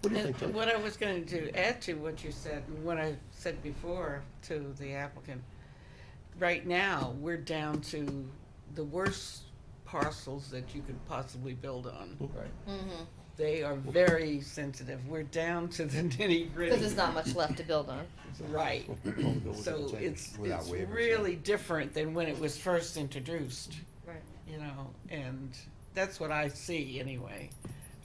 What do you And think, Dave? What I was going to do, add to what you said, and what I said before to the applicant, right now, we're down to the worst parcels that you could possibly build on. Right. They are very sensitive. We're down to the nitty gritty. Because there's not much left to build on. Right. So it's, it's really different than when it was first introduced, Right. you know, and that's what I see anyway.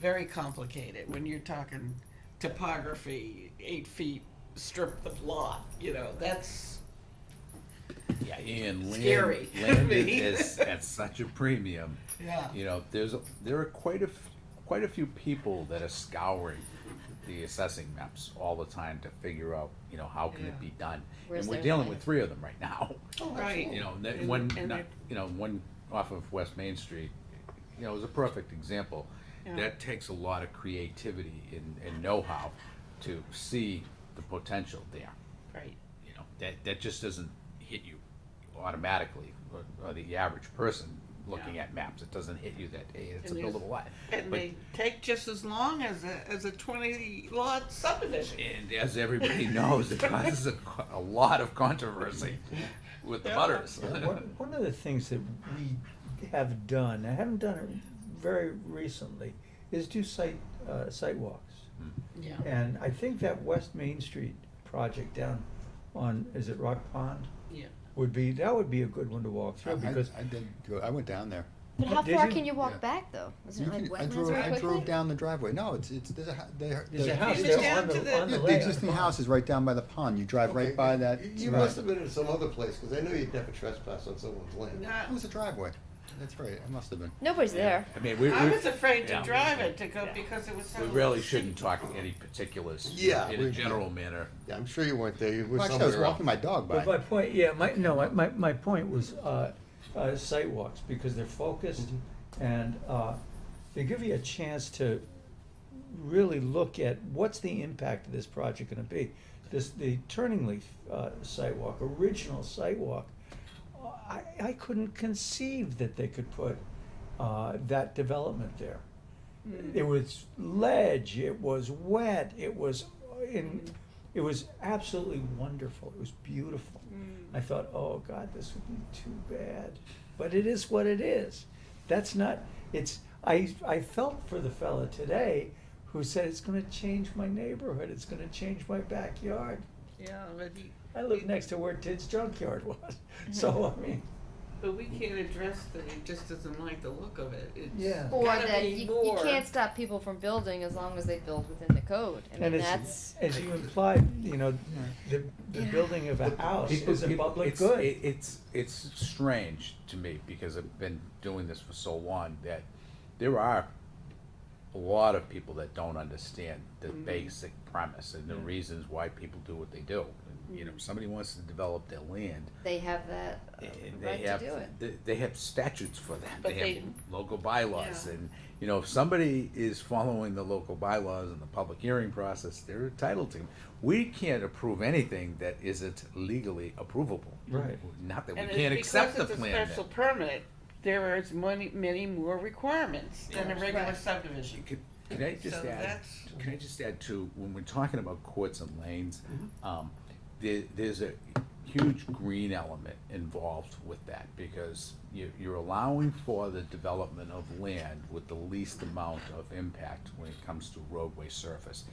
Very complicated when you're talking topography, eight feet strip of lot, you know, that's, Yeah, and Scary. land, land I mean. is at such a premium. yeah. You know, there's, a- there are quite a, f- quite a few people that are scouring the assessing maps all the time to figure out, you know, how can Yeah. it be done? Where's And we're their dealing land? with three of them right now. Right. You know, and that And- one, and not- they're- you know, one off of West Main Street, you know, is a perfect example. Yeah. That takes a lot of creativity and, and know-how to see the potential there Right. you know, that, that just doesn't hit you automatically, or, or the average person looking Yeah. at maps, it doesn't hit you that, hey, it's a And there's- buildable lot. And But- they take just as long as a, as a twenty lot subdivision. And as everybody knows, it causes a, co- a lot of controversy with the Yeah. butters. Yeah, One one of the things that we have done, I haven't done it very recently, is do site, uh, site walks. Hmm. Yeah. And I think that West Main Street project down on, is it Rock Pond? Yeah. Would be, that would be a good one to walk I, through because, I did go, I went down there. But how Did far you? can you walk Yeah. back though? Isn't You can- I it like wetlands drove, really I quickly? drove down the driveway. No, it's, it's, there's a, hou- they, there's the- a house It's there down on to the, the- on Yeah, the the layout. existing house is right down by the pond. You drive right by that. You Right. must have been in some other place, because I know you'd never trespass on someone's land. It was a driveway. That's right. It must have been. Nobody's there. I mean, we, we, I was afraid to yeah. drive it to go because it was so. we really shouldn't talk any particulars Yeah, in a we- general manner. Yeah, I'm sure you weren't there. You were Well, actually, I was somewhere else. walking my dog by. But my point, yeah, my, no, my- my, my point was, uh, uh, site walks, because they're focused and, uh, they give you a chance to really look at what's the impact of this project gonna be. This, the Turning Leaf, uh, site walk, original site walk, I, I couldn't conceive that they could put, uh, that development there. It was ledge, it was wet, it was in, it was absolutely wonderful, it was beautiful. I thought, oh God, this would be too bad, but it is what it is. That's not, it's, I, I felt for the fella today who said, it's gonna change my neighborhood, it's gonna change my backyard. Yeah, but he- I live next to where Ted's junkyard was, so I mean, But we can't address that he just doesn't like the look of it. It's Yeah. Or gotta that be you, you more. can't stop people from building as long as they build within the code. I mean, and that's. as, as you implied, you know, the, the building of a house People- is a people- public it's- good. it- It's, it's strange to me, because I've been doing this for so long, that there are a lot of people that don't understand the Mm-hmm. basic premise and the reasons why people do what they do. And, You know, Mm-hmm. somebody wants to develop their land, They have that uh, and they right have, to do it. they- they have statutes for that, But they they- have local bylaws, Yeah. and, you know, if somebody is following the local bylaws and the public hearing process, they're entitled to. We can't approve anything that isn't legally approvable. Right. Not that we And can't it's accept the because it's a plan. special that- permit, there is many, many more requirements than a Yeah. regular Right. subdivision. Could- Can I So just add, that's- can I just add to, when we're talking about courts and lanes, um, there, there's a huge green element involved with that, because you, you're allowing for the development of land with the least amount of impact when it comes to roadway surface.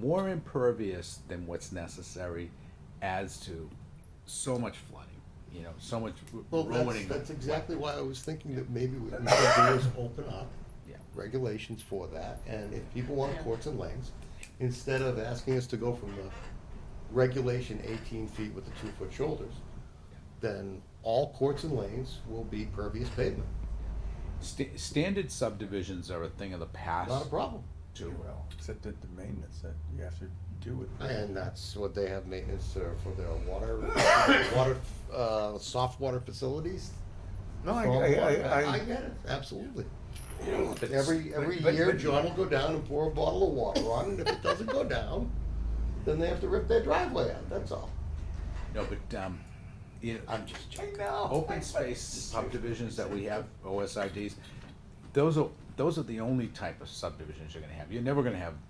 More impervious than what's necessary adds to so much flooding, you know, so much r- Well, that's, ruining. that's exactly why I was thinking that maybe what we should do is open up Yeah. regulations for that, and if people want Yeah. courts and lanes, instead of asking us to go from the regulation eighteen feet with the two-foot shoulders, then all courts and lanes will be pervious pavement, Sta- Standard subdivisions are a thing of the past. not a problem. too. Well, except that the maintenance that you have to do with. And that's what they have maintenance uh, for their water, water, uh, soft water facilities. No, I, I, Stormwater. I, I, get it, absolutely. But- Every, every but- but- year, but- John will go down and pour a bottle of water on, and if it doesn't go down, then they have to rip their driveway out, that's all. No, but, um, you know, I'm just joking. open space subdivisions that we have, OSRDs, those are, those are the only type of subdivisions you're gonna have. You're never gonna have